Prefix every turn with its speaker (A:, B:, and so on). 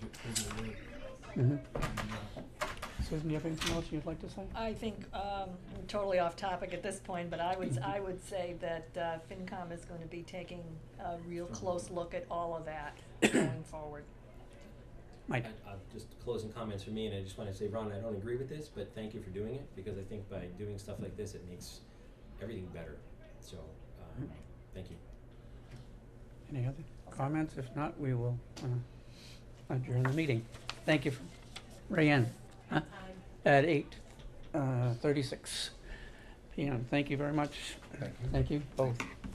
A: Susan, you have anything else you'd like to say?
B: I think, um, I'm totally off topic at this point, but I would, I would say that, uh, FinCom is gonna be taking a real close look at all of that going forward.
A: Mike?
C: I- I- uh, Just closing comments from me, and I just wanna say, Ron, I don't agree with this, but thank you for doing it, because I think by doing stuff like this, it makes everything better. So, um, thank you.
A: Any other comments? If not, we will uh, adjourn the meeting. Thank you, Rayanne, huh? at eight uh, thirty-six PM. Thank you very much. Thank you. both.